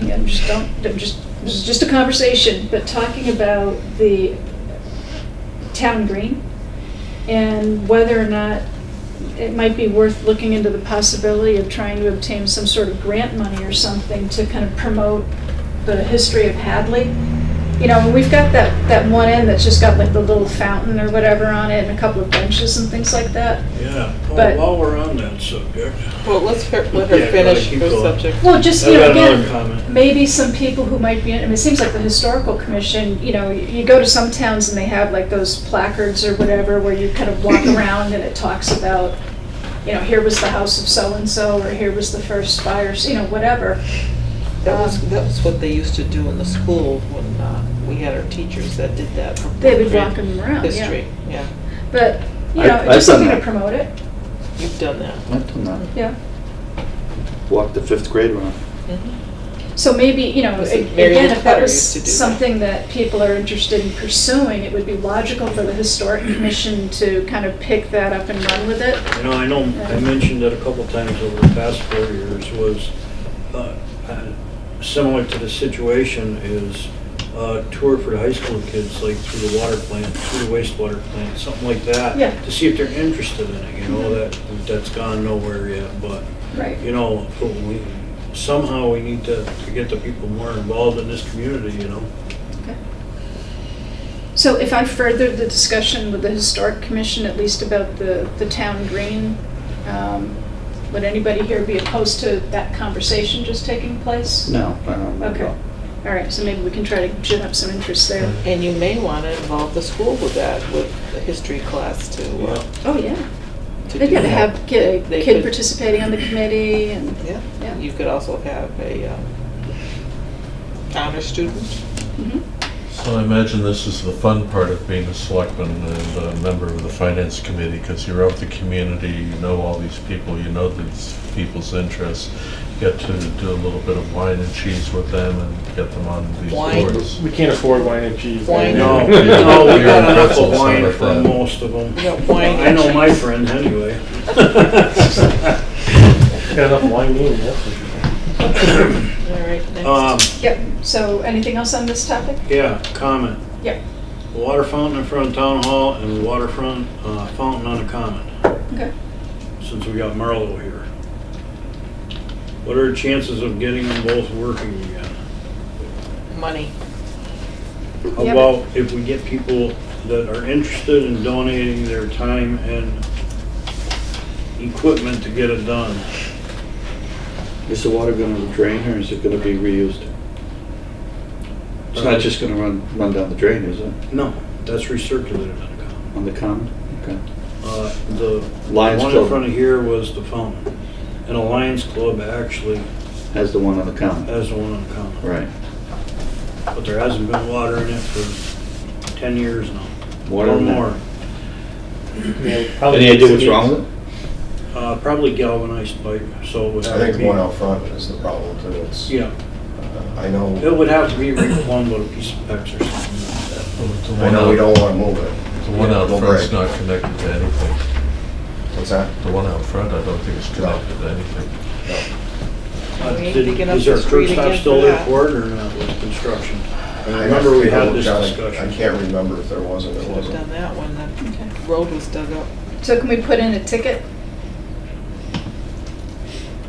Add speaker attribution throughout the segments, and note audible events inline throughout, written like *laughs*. Speaker 1: I'm just don't, I'm just, this is just a conversation, but talking about the town green and whether or not it might be worth looking into the possibility of trying to obtain some sort of grant money or something to kind of promote the history of Hadley. You know, and we've got that, that one end that's just got like the little fountain or whatever on it and a couple of benches and things like that.
Speaker 2: Yeah,
Speaker 1: But-
Speaker 2: well, while we're on that subject.
Speaker 3: Well, let's her, let
Speaker 2: Yeah,
Speaker 3: her
Speaker 2: go
Speaker 3: finish
Speaker 2: ahead, keep
Speaker 3: her
Speaker 2: going.
Speaker 3: subject.
Speaker 1: Well, just,
Speaker 2: I've
Speaker 1: you know,
Speaker 2: got another
Speaker 1: again,
Speaker 2: comment.
Speaker 1: maybe some people who might be, I mean, it seems like the historical commission, you know, you go to some towns and they have like those placards or whatever where you kind of walk *clears throat* around and it talks about, you know, here was the house of so-and-so, or here was the first fires, you know, whatever.
Speaker 3: That was,
Speaker 1: Um,
Speaker 3: that was what they used to do in the school when uh, we had our teachers that did that. for
Speaker 1: They would
Speaker 3: program
Speaker 1: walk 'em around, yeah.
Speaker 3: History, yeah,
Speaker 1: But, you
Speaker 4: I-
Speaker 1: know,
Speaker 4: I've
Speaker 1: just
Speaker 4: done
Speaker 1: something to
Speaker 4: that.
Speaker 1: promote it,
Speaker 3: you've done that.
Speaker 4: I've done that.
Speaker 1: yeah.
Speaker 4: Walked the fifth grade round.
Speaker 3: Mm-hmm.
Speaker 1: So maybe, you know,
Speaker 3: Was it Mary Lou
Speaker 1: again, if that
Speaker 3: Potter
Speaker 1: was
Speaker 3: used to do that?
Speaker 1: something that people are interested in pursuing, it would be logical for the historic commission to kind of pick that up and run with it.
Speaker 2: You know, I know, I mentioned it a couple times over the past four years, was uh, uh, similar to the situation is uh, tour for the high school kids, like through the water plant, through the wastewater plant, something like that.
Speaker 1: Yeah. Mm-hmm.
Speaker 2: To see if they're interested in it, you know, that, that's gone nowhere yet, but,
Speaker 1: Right.
Speaker 2: you know, but we- somehow we need to to get the people more involved in this community, you know?
Speaker 1: Okay. So if I further the discussion with the historic commission, at least about the, the town green, um, would anybody here be opposed to that conversation just taking place?
Speaker 4: No, I don't know.
Speaker 1: Okay. All right, so maybe we can try to gin up some interest there.
Speaker 3: And you may want to involve the school with that, with the history class to, uh,
Speaker 1: Oh, yeah.
Speaker 3: to
Speaker 1: They
Speaker 3: do
Speaker 1: gotta
Speaker 3: that.
Speaker 1: have ki- a
Speaker 3: They
Speaker 1: kid
Speaker 3: could-
Speaker 1: participating on the committee and, Yeah.
Speaker 3: Yeah, you could also have a um, honor student.
Speaker 1: mhm.
Speaker 5: So I imagine this is the fun part of being a selectman and a member of the finance committee, because you're of the community, you know all these people, you know these people's interests, get to do a little bit of wine and cheese with them and get them on these
Speaker 3: Wine.
Speaker 5: boards.
Speaker 6: We can't afford wine and cheese.
Speaker 3: Wine.
Speaker 2: No,
Speaker 6: *laughs*
Speaker 3: No.
Speaker 2: no, we got enough
Speaker 5: Pretzels,
Speaker 2: of wine
Speaker 5: not
Speaker 2: for
Speaker 5: bad.
Speaker 2: most of them.
Speaker 3: You got wine
Speaker 2: I know
Speaker 3: and
Speaker 2: my
Speaker 3: cheese.
Speaker 2: friend
Speaker 3: *laughs*
Speaker 2: anyway.
Speaker 6: *laughs* Got enough wine in, that's for sure.
Speaker 3: All right,
Speaker 2: Um,
Speaker 3: next.
Speaker 1: Yep, so anything else on this topic?
Speaker 2: yeah, comment.
Speaker 1: Yep,
Speaker 2: Water fountain in front of town hall and waterfront, uh, fountain on the common,
Speaker 1: okay.
Speaker 2: since we got Marlo here. What are the chances of getting them both working again?
Speaker 3: Money.
Speaker 2: How
Speaker 1: Yep.
Speaker 2: about if we get people that are interested in donating their time and equipment to get it done?
Speaker 4: Is the water going to drain or is it going to be reused? It's not just going to run, run down the drain, is it?
Speaker 2: No, that's recirculated on the common.
Speaker 4: On the common? Okay.
Speaker 2: Uh, The
Speaker 4: Lions
Speaker 2: one in
Speaker 4: Club.
Speaker 2: front of here was the fountain. And the Lions Club actually
Speaker 4: As the one on the common?
Speaker 2: has the one on common.
Speaker 4: Right.
Speaker 2: But there hasn't been water in it for 10 years now.
Speaker 4: Water
Speaker 2: Or
Speaker 4: in that.
Speaker 2: more.
Speaker 4: Any idea what's wrong with it?
Speaker 2: Uh, Probably galvanized pipe, so it would
Speaker 7: I
Speaker 2: have
Speaker 7: think
Speaker 2: to
Speaker 7: the one out
Speaker 2: be.
Speaker 7: front is the problem too. It's,
Speaker 2: Yeah,
Speaker 7: I know,
Speaker 2: it would have to be replumbed with a piece of PEX or something like that.
Speaker 5: The
Speaker 7: I
Speaker 5: one
Speaker 7: know we
Speaker 5: out,
Speaker 7: don't want to move it.
Speaker 5: the one out
Speaker 7: It'll
Speaker 5: front's
Speaker 7: break.
Speaker 5: not connected to anything.
Speaker 7: What's that?
Speaker 5: The one out front, I don't think is
Speaker 7: No.
Speaker 5: connected to anything.
Speaker 2: Uh,
Speaker 3: We need to
Speaker 2: did-
Speaker 3: get up
Speaker 2: Is
Speaker 3: to
Speaker 2: there a curb
Speaker 3: speed
Speaker 2: stop
Speaker 3: again
Speaker 2: still
Speaker 3: for
Speaker 2: there
Speaker 3: that.
Speaker 2: for it or not with construction? I
Speaker 7: I
Speaker 2: remember we had
Speaker 7: looked
Speaker 2: this
Speaker 7: at it. I
Speaker 2: discussion.
Speaker 7: can't remember if there was or there
Speaker 3: Should have done
Speaker 7: wasn't.
Speaker 3: that one, the
Speaker 1: Okay.
Speaker 3: road was dug up.
Speaker 1: So can we put in a ticket?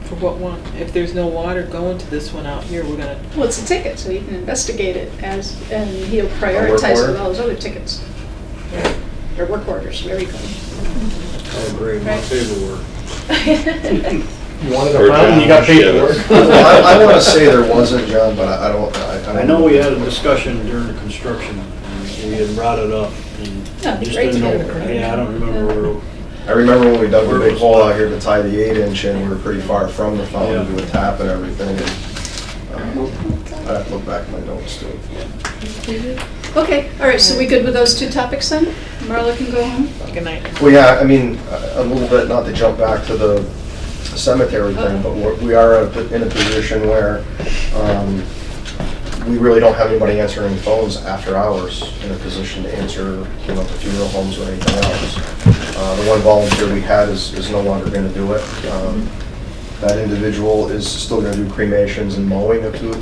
Speaker 3: For what one? If there's no water going to this one out here, we're gonna,
Speaker 1: Well, it's a ticket, so you can investigate it as, and he'll
Speaker 7: A work
Speaker 1: prioritize it with
Speaker 7: order?
Speaker 1: all his other tickets. Or work orders, whatever you call
Speaker 2: Oh, great, my
Speaker 1: Right.
Speaker 2: paperwork.
Speaker 1: them.
Speaker 6: You wanted a fountain, you got paid for it.
Speaker 7: *laughs* Well, I, I want to say there wasn't, John, but I I don't, I don't.
Speaker 2: I know we had a discussion during the construction, and we had brought it up, and
Speaker 1: That'd be
Speaker 2: just
Speaker 1: great to
Speaker 2: didn't
Speaker 1: get
Speaker 2: know,
Speaker 1: it approved.
Speaker 2: yeah, I don't remember where,
Speaker 7: I remember when we dug the big hole out here to tie the eight inch in, we were pretty far from the fountain to a tap and everything. and, uh, I have to look back at my notes too.
Speaker 1: *laughs* Okay, all right, so we good with those two topics then? Marla can go home?
Speaker 3: good night.
Speaker 7: Well, yeah, I mean, a a little bit, not to jump back to the cemetery thing, but we're- we are at the- in a position where um, we really don't have anybody answering phones after hours in a position to answer, you know, the funeral homes or anything else. Uh, The one volunteer we had is is no longer going to do it. Um, That individual is still going to do cremations and mowing of two